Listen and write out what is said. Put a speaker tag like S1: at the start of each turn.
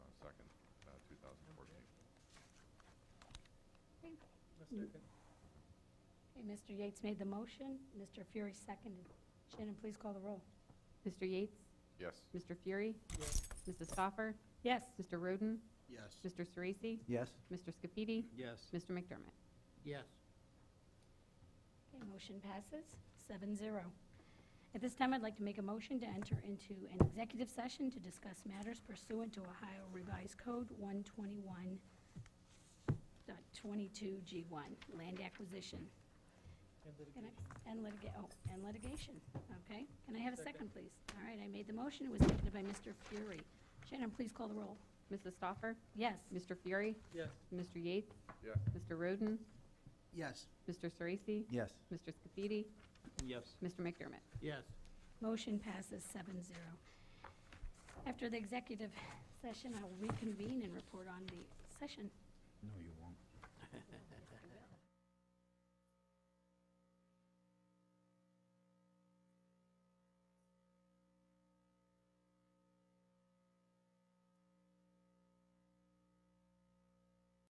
S1: Second.
S2: Okay, Mr. Yates made the motion, Mr. Fury seconded. Shannon, please call the roll.
S3: Mr. Yates?
S4: Yes.
S3: Mr. Fury?
S1: Yes.
S3: Mrs. Stoffer?
S2: Yes.
S3: Mr. Roden?
S5: Yes.
S3: Mr. Sorese?
S6: Yes.
S3: Mr. Scafidi?
S5: Yes.
S3: Mr. McDermott?
S5: Yes.
S2: Okay, motion passes, seven zero. At this time, I'd like to make a motion to enter into an executive session to discuss matters pursuant to Ohio Revised Code one twenty-one G one, land acquisition
S1: And
S2: Can
S1: litigation.
S2: I- and litigate, oh, and litigation, okay? Can I have a
S1: Second.
S2: second, please? All right, I made the motion, it was seconded by Mr. Fury. Shannon, please call the roll.
S3: Mrs. Stoffer?
S2: Yes.
S3: Mr. Fury?
S1: Yes.
S3: Mr. Yates?
S4: Yeah.
S3: Mr. Roden?
S5: Yes.
S3: Mr. Sorese?
S6: Yes.
S3: Mr. Scafidi?
S5: Yes.
S3: Mr. McDermott?
S5: Yes.
S2: Motion passes seven zero. After the executive session, I will reconvene and report on the session.
S6: No, you won't.